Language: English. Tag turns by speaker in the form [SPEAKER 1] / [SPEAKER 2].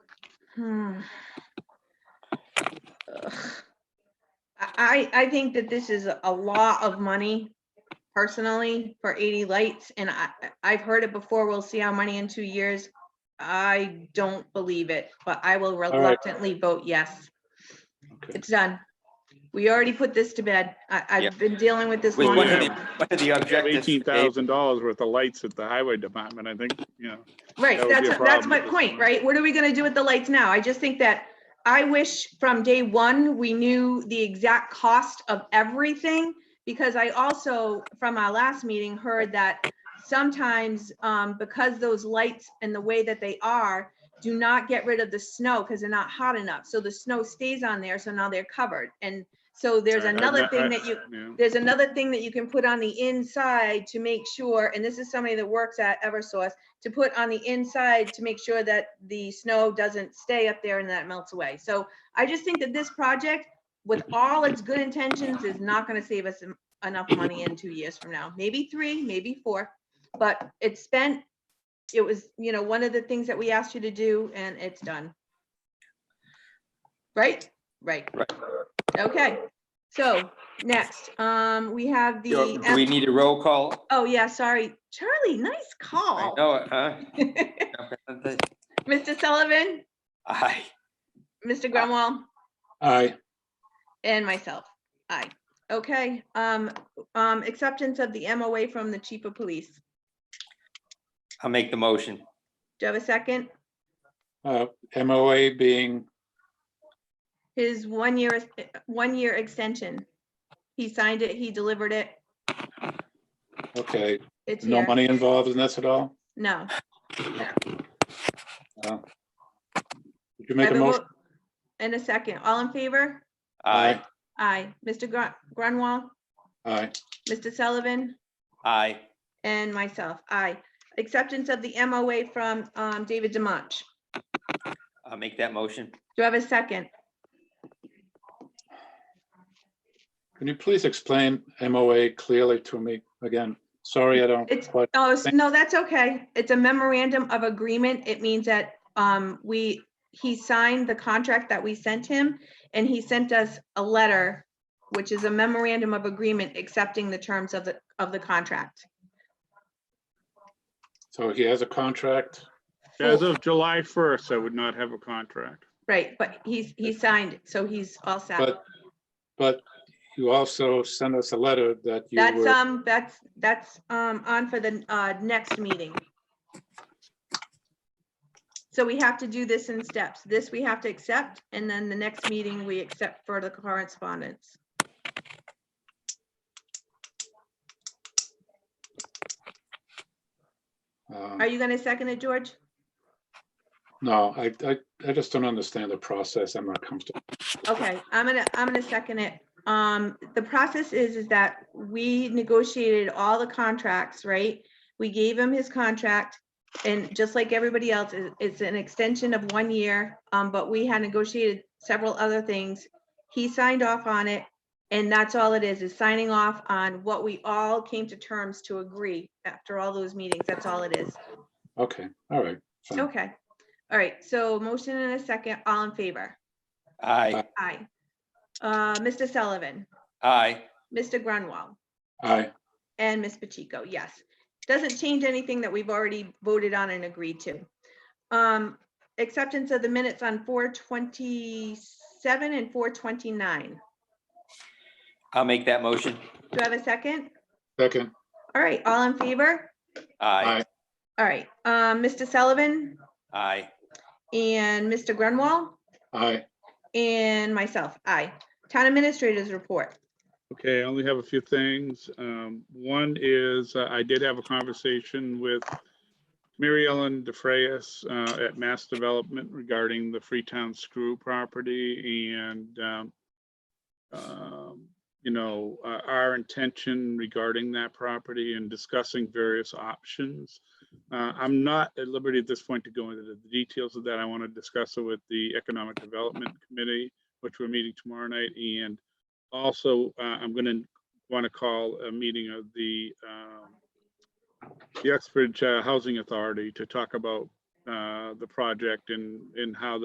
[SPEAKER 1] Hmm. Ugh. I, I I think that this is a lot of money personally for 80 lights and I, I've heard it before. We'll see how many in two years. I don't believe it, but I will
[SPEAKER 2] right.
[SPEAKER 1] reluctantly vote yes.
[SPEAKER 2] Okay.
[SPEAKER 1] It's done. We already put this to bed. I, I've
[SPEAKER 3] Yep.
[SPEAKER 1] been dealing with this
[SPEAKER 3] With
[SPEAKER 1] long
[SPEAKER 3] one of
[SPEAKER 2] Yeah.
[SPEAKER 3] the,
[SPEAKER 1] enough.
[SPEAKER 3] one of the objectives,
[SPEAKER 2] Eighteen
[SPEAKER 3] Dave,
[SPEAKER 2] thousand dollars worth of lights at the highway department, I think, you know.
[SPEAKER 1] Right,
[SPEAKER 2] That would be
[SPEAKER 1] that's,
[SPEAKER 2] a
[SPEAKER 1] that's
[SPEAKER 2] problem
[SPEAKER 1] my
[SPEAKER 2] at this
[SPEAKER 1] point,
[SPEAKER 2] point.
[SPEAKER 1] right? What are we gonna do with the lights now? I just think that I wish from day one, we knew the exact cost of everything. Because I also, from our last meeting, heard that sometimes, um, because those lights and the way that they are, do not get rid of the snow because they're not hot enough. So the snow stays on there, so now they're covered. And so there's
[SPEAKER 2] I- I-
[SPEAKER 1] another
[SPEAKER 2] I-
[SPEAKER 1] thing that you,
[SPEAKER 2] yeah.
[SPEAKER 1] there's another thing that you can put on the inside to make sure, and this is somebody that works at Eversource, to put on the inside to make sure that the snow doesn't stay up there and that melts away. So I just think that this project, with all its good intentions, is not gonna save us em- enough money in two years from now, maybe three, maybe four. But it's spent, it was, you know, one of the things that we asked you to do and it's done. Right? Right.
[SPEAKER 3] Right.
[SPEAKER 1] Okay, so next, um, we have
[SPEAKER 3] do
[SPEAKER 1] the,
[SPEAKER 3] do we need a roll call?
[SPEAKER 1] oh yeah, sorry, Charlie, nice
[SPEAKER 3] I
[SPEAKER 1] call.
[SPEAKER 3] know it, huh?
[SPEAKER 1] Mr. Sullivan,
[SPEAKER 3] Aye.
[SPEAKER 1] Mr. Grunwall,
[SPEAKER 2] Aye.
[SPEAKER 1] and myself. Aye. Okay, um, um, acceptance of the MOA from the chief of police.
[SPEAKER 3] I'll make the motion.
[SPEAKER 1] Do you have a second?
[SPEAKER 4] uh, MOA being,
[SPEAKER 1] His one year, one year extension. He signed it, he delivered it.
[SPEAKER 4] okay,
[SPEAKER 1] It's
[SPEAKER 4] no
[SPEAKER 1] here.
[SPEAKER 4] money involved in this at all?
[SPEAKER 1] No.
[SPEAKER 4] Did you make a
[SPEAKER 1] Have a
[SPEAKER 4] motion?
[SPEAKER 1] vote And a second. All in favor?
[SPEAKER 3] Aye,
[SPEAKER 1] Aye. Mr. Grun- Grunwall,
[SPEAKER 4] Aye,
[SPEAKER 1] Mr. Sullivan,
[SPEAKER 3] aye.
[SPEAKER 1] and myself. Aye. Acceptance of the MOA from um, David Demuch.
[SPEAKER 3] I'll make that motion.
[SPEAKER 1] Do I have a second?
[SPEAKER 4] can you please explain MOA clearly to me again? Sorry, I don't
[SPEAKER 1] It's-
[SPEAKER 4] quite,
[SPEAKER 1] Oh, s-
[SPEAKER 4] Thank-
[SPEAKER 1] no, that's okay. It's a memorandum of agreement. It means that um, we, he signed the contract that we sent him, and he sent us a letter, which is a memorandum of agreement accepting the terms of the, of the contract.
[SPEAKER 4] so he has a contract,
[SPEAKER 2] As of July first, I would not have a contract.
[SPEAKER 1] Right, but he's, he signed, so he's all set.
[SPEAKER 4] but, but you also sent us a letter that you
[SPEAKER 1] That's,
[SPEAKER 4] were,
[SPEAKER 1] um, that's, that's, um, on for the, uh, next meeting. So we have to do this in steps. This we have to accept, and then the next meeting, we accept for the correspondence. Are
[SPEAKER 4] uh,
[SPEAKER 1] you gonna second it, George?
[SPEAKER 4] no, I, I, I just don't understand the process. I'm not comfortable.
[SPEAKER 1] Okay, I'm gonna, I'm gonna second it. Um, the process is, is that we negotiated all the contracts, right? We gave him his contract and just like everybody else, it- it's an extension of one year. Um, but we had negotiated several other things. He signed off on it and that's all it is, is signing off on what we all came to terms to agree after all those meetings. That's all it is.
[SPEAKER 4] Okay, all right, fine.
[SPEAKER 1] Okay. All right, so motion and a second, all in favor?
[SPEAKER 3] Aye,
[SPEAKER 1] Aye. Uh, Mr. Sullivan?
[SPEAKER 3] aye.
[SPEAKER 1] Mr. Grunwall
[SPEAKER 4] aye,
[SPEAKER 1] and Ms. Pacheco, yes. Doesn't change anything that we've already voted on and agreed to. Um, acceptance of the minutes on four twenty-seven and four twenty-nine.
[SPEAKER 3] I'll make that motion.
[SPEAKER 1] Do I have a second?
[SPEAKER 4] second,
[SPEAKER 1] All right, all in favor?
[SPEAKER 3] Aye,
[SPEAKER 1] All right, um, Mr. Sullivan
[SPEAKER 3] aye.
[SPEAKER 1] and Mr. Grunwall
[SPEAKER 4] aye,
[SPEAKER 1] and myself, aye. Town administrators report.
[SPEAKER 2] Okay, I only have a few things. Um, one is uh, I did have a conversation with Mary Ellen DeFrayis uh, at Mass Development regarding the Freetown Screw property and um, um, you know, uh, our intention regarding that property and discussing various options. Uh, I'm not at liberty at this point to go into the details of that. I want to discuss it with the Economic Development Committee, which we're meeting tomorrow night, and also, uh, I'm gonna want to call a meeting of the, um, the Uxbridge uh, Housing Authority to talk about, uh, the project and, and how